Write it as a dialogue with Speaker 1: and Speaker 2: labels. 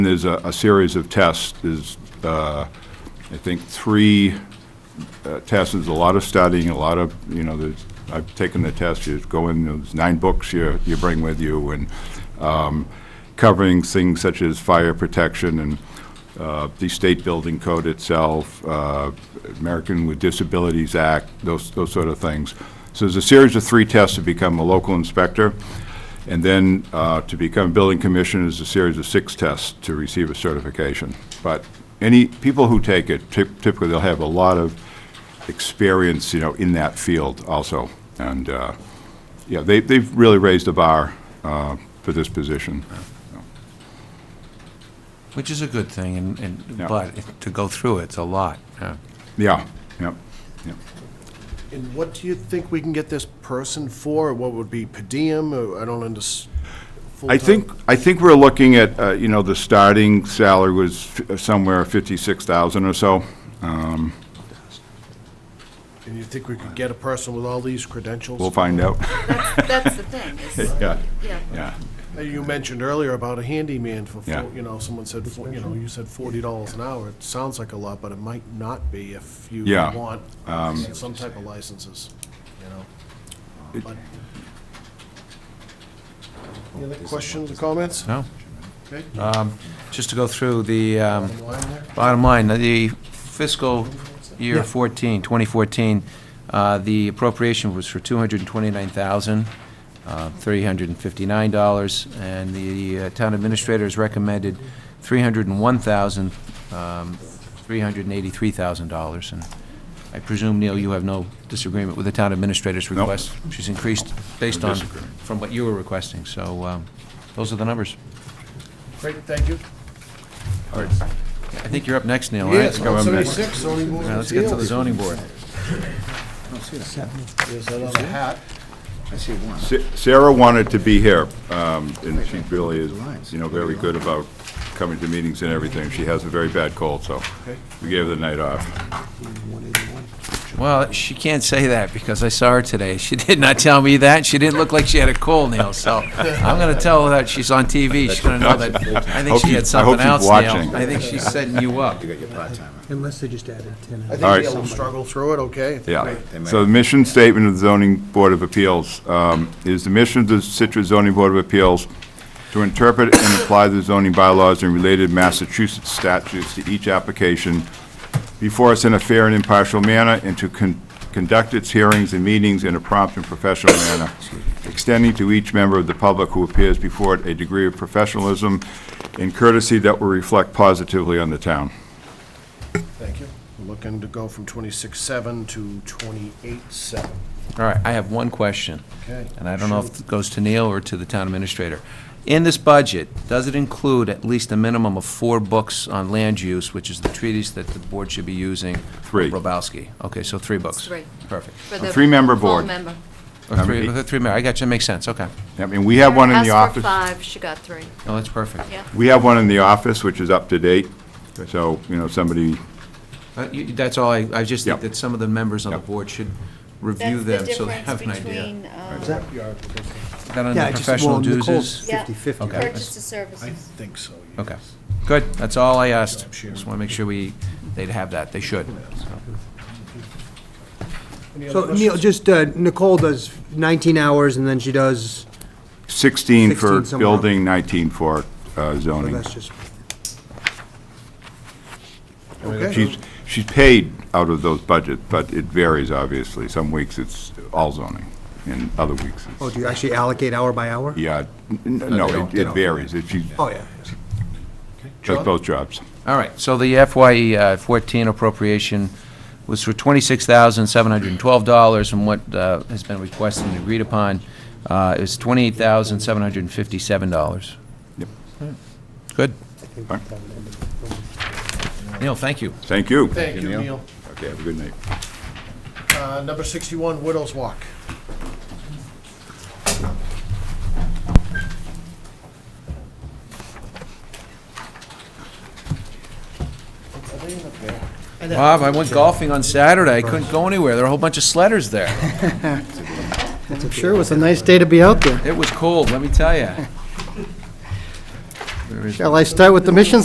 Speaker 1: There's a, a series of tests, there's, uh, I think, three uh, tests, there's a lot of studying, a lot of, you know, there's, I've taken the test, you go in, there's nine books you, you bring with you, and um, covering things such as fire protection and uh, the state building code itself, uh, American with Disabilities Act, those, those sort of things. So there's a series of three tests to become a local inspector. And then uh, to become a building commissioner is a series of six tests to receive a certification. But any, people who take it, typ- typically they'll have a lot of experience, you know, in that field also. And, uh, yeah, they, they've really raised the bar uh, for this position.
Speaker 2: Which is a good thing, and, and,
Speaker 1: Yeah.
Speaker 2: but to go through it's a lot, yeah.
Speaker 1: Yeah, yeah, yeah.
Speaker 3: And what do you think we can get this person for? What would be per diem? Or I don't understand.
Speaker 1: I think, I think we're looking at, uh, you know, the starting salary was f- somewhere 56,000 or so.
Speaker 3: And you think we could get a person with all these credentials?
Speaker 1: We'll find out.
Speaker 4: That's the thing, is,
Speaker 1: Yeah,
Speaker 4: yeah,
Speaker 1: yeah.
Speaker 3: Uh, You mentioned earlier about a handyman for,
Speaker 1: Yeah.
Speaker 3: fo- you know, someone said, fo- you know, you said forty dollars an hour. It sounds like a lot, but it might not be if you
Speaker 1: Yeah, um,
Speaker 3: want some type of licenses, you know? But- Any other questions or comments?
Speaker 2: No?
Speaker 3: Okay.
Speaker 2: Just to go through the, um,
Speaker 3: Bottom line there?
Speaker 2: bottom line, the fiscal year 14, 2014, uh, the appropriation was for uh, $229,359, and the uh, town administrator has recommended $301,000, um, $383,000. And I presume, Neil, you have no disagreement with the town administrator's request? She's increased based on,
Speaker 1: disagreement.
Speaker 2: from what you were requesting, so um, those are the numbers.
Speaker 3: Great, thank you.
Speaker 2: I think you're up next, Neil, right?
Speaker 3: Yes,
Speaker 2: Go on next.
Speaker 3: 176, zoning board
Speaker 2: Now,
Speaker 3: of
Speaker 2: Let's get to the
Speaker 3: appeals.
Speaker 2: zoning board.
Speaker 3: There's that other hat.
Speaker 1: Sa- Sarah wanted to be here, um, and she really is, you know, very good about coming to meetings and everything. She has a very bad cold, so we gave her the night off.
Speaker 2: Well, she can't say that because I saw her today. She did not tell me that. She didn't look like she had a cold, Neil, so I'm going to tell her that she's on TV. She's going to know that. I think
Speaker 1: Hope
Speaker 2: she
Speaker 1: you-
Speaker 2: had
Speaker 1: I hope
Speaker 2: something
Speaker 1: she's
Speaker 2: else,
Speaker 1: watching.
Speaker 2: Neil. I think she's setting you up.
Speaker 5: Unless they just added 10.
Speaker 3: I
Speaker 1: All right.
Speaker 3: think they'll struggle through it, okay?
Speaker 1: Yeah. So the mission statement of the zoning board of appeals um, is the mission of the Citrus zoning board of appeals to interpret and apply the zoning bylaws and related Massachusetts statutes to each application before us in a fair and impartial manner, and to con- conduct its hearings and meetings in a prompt and professional manner, extending to each member of the public who appears before it a degree of professionalism and courtesy that will reflect positively on the town.
Speaker 3: Thank you. We're Looking to go from twenty-six-seven to twenty-eight-seven.
Speaker 2: All right, I have one question.
Speaker 3: Okay.
Speaker 2: And I don't know if it goes to Neil or to the town administrator. In this budget, does it include at least a minimum of four books on land use, which is the treatise that the board should be using?
Speaker 1: Three.
Speaker 2: Robowski. Okay, so three books.
Speaker 4: Three.
Speaker 2: Perfect.
Speaker 4: for the.
Speaker 1: three-member
Speaker 4: full
Speaker 1: board.
Speaker 4: member.
Speaker 2: Or
Speaker 1: Um,
Speaker 2: three,
Speaker 1: it-
Speaker 2: uh, three, Mary, I got you, makes sense, okay.
Speaker 1: I mean, we have one in the
Speaker 4: Asked for
Speaker 1: office.
Speaker 4: five, she got three,
Speaker 2: No, that's perfect.
Speaker 4: yeah.
Speaker 1: We have one in the office, which is up to date, so, you know, somebody,
Speaker 2: Uh, you- That's all, I, I just think
Speaker 1: Yep.
Speaker 2: that some of the members on the
Speaker 1: Yep.
Speaker 2: board should review them, so they have an idea.
Speaker 4: idea.
Speaker 2: That on
Speaker 5: Yeah,
Speaker 2: the
Speaker 5: I just-
Speaker 2: professional
Speaker 5: well, Nicole's-
Speaker 2: duties?
Speaker 5: Yeah, 50-50,
Speaker 2: Okay. purchase
Speaker 4: Purchase of
Speaker 3: I
Speaker 4: services.
Speaker 3: think so. yes.
Speaker 2: Okay, good, that's all I asked.
Speaker 3: I'm sure.
Speaker 2: Just want to make sure we, they'd have that, they should.
Speaker 3: Any other
Speaker 5: So Neil,
Speaker 3: questions?
Speaker 5: just, uh, Nicole does 19 hours, and then she does,
Speaker 1: 16 for
Speaker 5: 16 somewhere.
Speaker 1: building, 19 for uh,
Speaker 5: well,
Speaker 1: zoning.
Speaker 5: that's just,
Speaker 1: She's, she's paid out of those budgets, but it varies, obviously. Some weeks it's all zoning, and other weeks
Speaker 5: oh,
Speaker 1: it's,
Speaker 5: do you actually allocate hour by hour?
Speaker 1: yeah, n- n- no, it- it varies. If she
Speaker 5: Oh, yeah.
Speaker 1: does both jobs.
Speaker 2: All right, so the FY uh, 14 appropriation was for $26,712, from what uh, has been requested and agreed upon uh, is $28,757.
Speaker 1: Yep.
Speaker 2: Good. Neil, thank you.
Speaker 1: Thank you.
Speaker 3: Thank you, Neil.
Speaker 1: Okay, have a good night.
Speaker 3: Uh, Number 61, Widows Walk.
Speaker 2: Bob, I went golfing on Saturday, I couldn't go anywhere, there were a whole bunch of sledders there.
Speaker 6: I'm sure it was a nice day to be out there.
Speaker 2: It was cold, let me tell you.
Speaker 7: reasonable.
Speaker 5: Shall I start with the mission